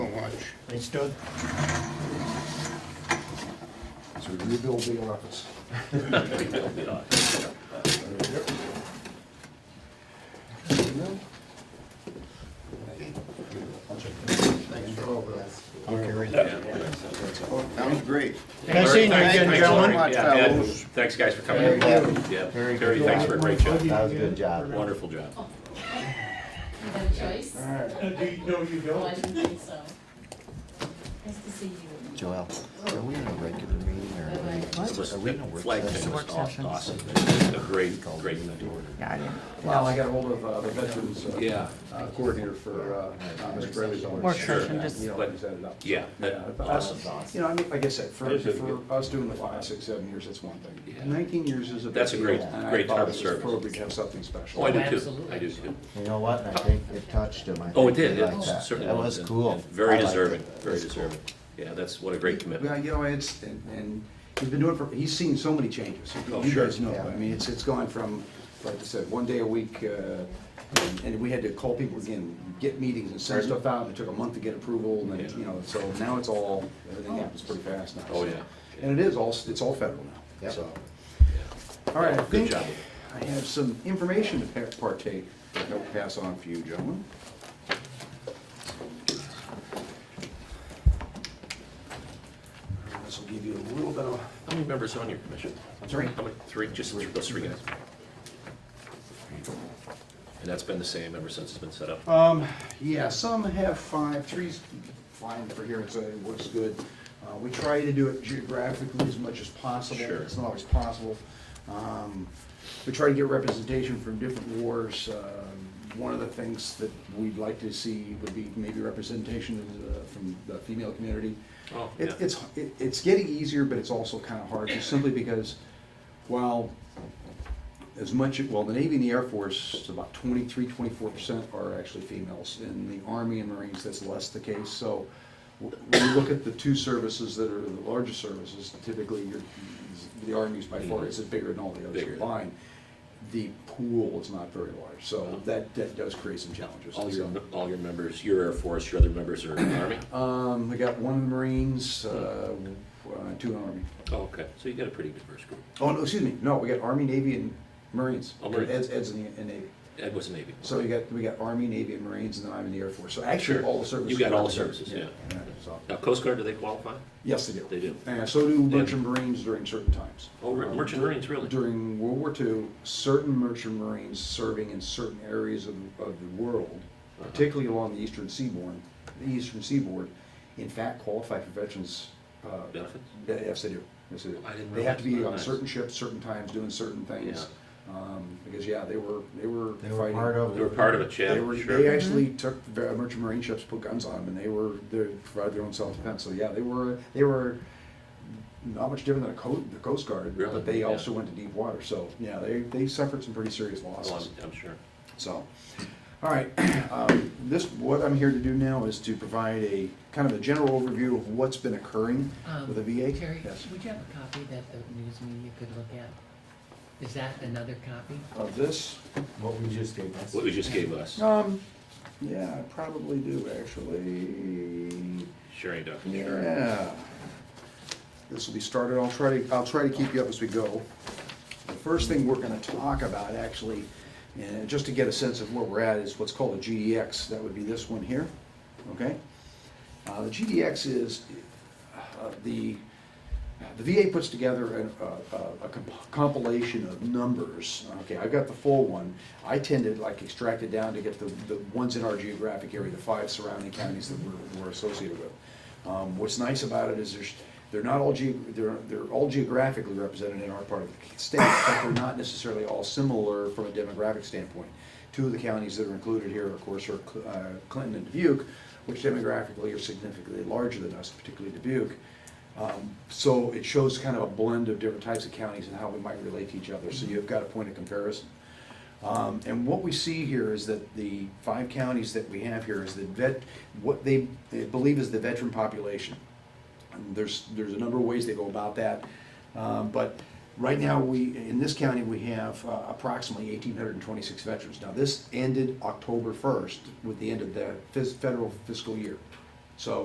They stood. So we rebuild the office. Sounds great. Nice seeing you again, Thank you so gentlemen. much, Yeah, yeah, fellas. Thanks, guys, for coming. in. Yeah, Terry, thanks for a great job, That was a good job. wonderful Oh, job. You have a choice? Uh, Do you, no, you Oh, No, I don't. didn't think so. Nice to see you. Joel, are we in a regular meeting or are we- It was- are we in a work Flag thing session? was aw- session. awesome, a great, great thing. Yeah, I didn't. Well, I got ahold of uh, the veterans uh, Yeah, uh, coordinator for uh, uh, Mr. Braley's office. Work session, just- You know, he set it up. yeah, Yeah, that- but us- You know, I mean, like I said, for, It is a for good- us doing the five, six, seven years, that's one thing. Yeah. Nineteen years is a big That's a deal, great- and I great thought term it was service. Appropriate to have something special. oh, I do too, Absolutely. I do too. You know what, I think it touched him, I Oh, it think he did, liked it that. certainly. That was cool. I Very liked deserving, it. very It's cool. deserving. Yeah, that's, what a great Well, commitment. you know, it's, and- and he's been doing it for, he's seen so many changes. Oh, You sure. guys know, Yeah. I mean, it's, it's gone from, like I said, one day a week, uh, and- and we had to call people again, get meetings and send stuff out, and it took a month to get approval, and Yeah. then, you know, so now it's all, everything happens pretty fast now. Oh, so. yeah. And it is all, it's all federal now, Yep. so. All right, I Good think job. I have some information to pa- partake, that I'll pass on for you gentlemen. This will give you a little bit of How many members on your commission? Three. How many, three, just three- those three guys? And that's been the same ever since it's been set up? Um, yeah, some have five, three's fine for here, it's, uh, it looks good. Uh, we try to do it geographically as much as possible. Sure. It's not always possible. Um, we try to get representation from different wars. Uh, One of the things that we'd like to see would be maybe representation of the- from the female community. Oh, It- yeah. It's, it- it's getting easier, but it's also kind of hard, just simply because while as much, well, the Navy and the Air Force, about 23, 24 percent are actually females. In the Army and Marines, that's less the case. So w- when you look at the two services that are the largest services, typically you're, the Army's by far, it's bigger than all the others Mm-hmm. Bigger. combined. The pool is not very large, so that, that does create some challenges. Uh-huh. All your, So- all your members, your Air Force, your other members are in the Army? Um, we got one in the Marines, uh, Hmm. uh, two in the Army. Oh, okay, so you got a pretty diverse group. Oh, no, excuse me, no, we got Army, Navy, and Marines. Oh, Marines. Ed's, Ed's in the, in Navy. Ed was Navy. So we got, we got Army, Navy, and Marines, and then I'm in the Air Force. So actually, Sure. all the services. You got all are the services, yeah. so- Now, Coast Guard, do they qualify? Yes, they do. They do. And so do merchant Marines during certain times. Oh, re- Um, merchant Marines, really? During World War II, certain merchant Marines serving in certain areas of, of the world, Uh-huh. particularly along the eastern seaboard, the eastern seaboard, in fact qualify for veterans. uh, Benefits? yeah, Yes, they do. Yes, they do. I didn't They have to be realize. on Nice. certain ships, certain times, doing certain things. Um, Because, yeah, they were, they were They fighting. were part of it. They were part of it, They yeah, were, they sure. actually Mm-hmm. took the merchant marine ships, put guns on them, and they were, they provided their own self-defense, so yeah, they were, they were not much different than a coast, the Coast Guard, Really? but they Yeah. also went to deep water, so, yeah, they, they suffered some pretty serious Oh, losses, I'm, I'm sure. so. All right, um, this, what I'm here to do now is to provide a, kind of a general overview of what's been occurring Um, with the VA. Terry, Yes. would you have a copy that the news media could look at? Is that another copy? Of this, What we just gave us. What you just gave us, um, yeah, I probably do, actually. sharing document. Yeah. This will be started, I'll try to, I'll try to keep you up as we go. The first thing we're gonna talk about, actually, and just to get a sense of where we're at, is what's called a GDX, that would be this one here, okay? Uh, the GDX is, uh, the, the VA puts together an- a- a a compilation of numbers. Okay, I've got the full one. I tend to like extract it down to get the, the ones in our geographic area, the five surrounding counties that we're, we're associated with. Um, What's nice about it is there's, they're not all geo, they're, they're all geographically represented in our part of the state, but they're not necessarily all similar from a demographic standpoint. Two of the counties that are included here, of course, are Cl- uh, Clinton and Dubuque, which demographically are significantly larger than us, particularly Dubuque. Um, So it shows kind of a blend of different types of counties and how we might relate to each other, so you've got a point of comparison. Um, And what we see here is that the five counties that we have here is that vet, what they they believe is the veteran population. And There's, there's a number of ways they go about that, Um, but right now, we, in this county, we have uh, approximately eighteen hundred and twenty-six veterans. Now, this ended October first with the end of the fis- federal fiscal year. So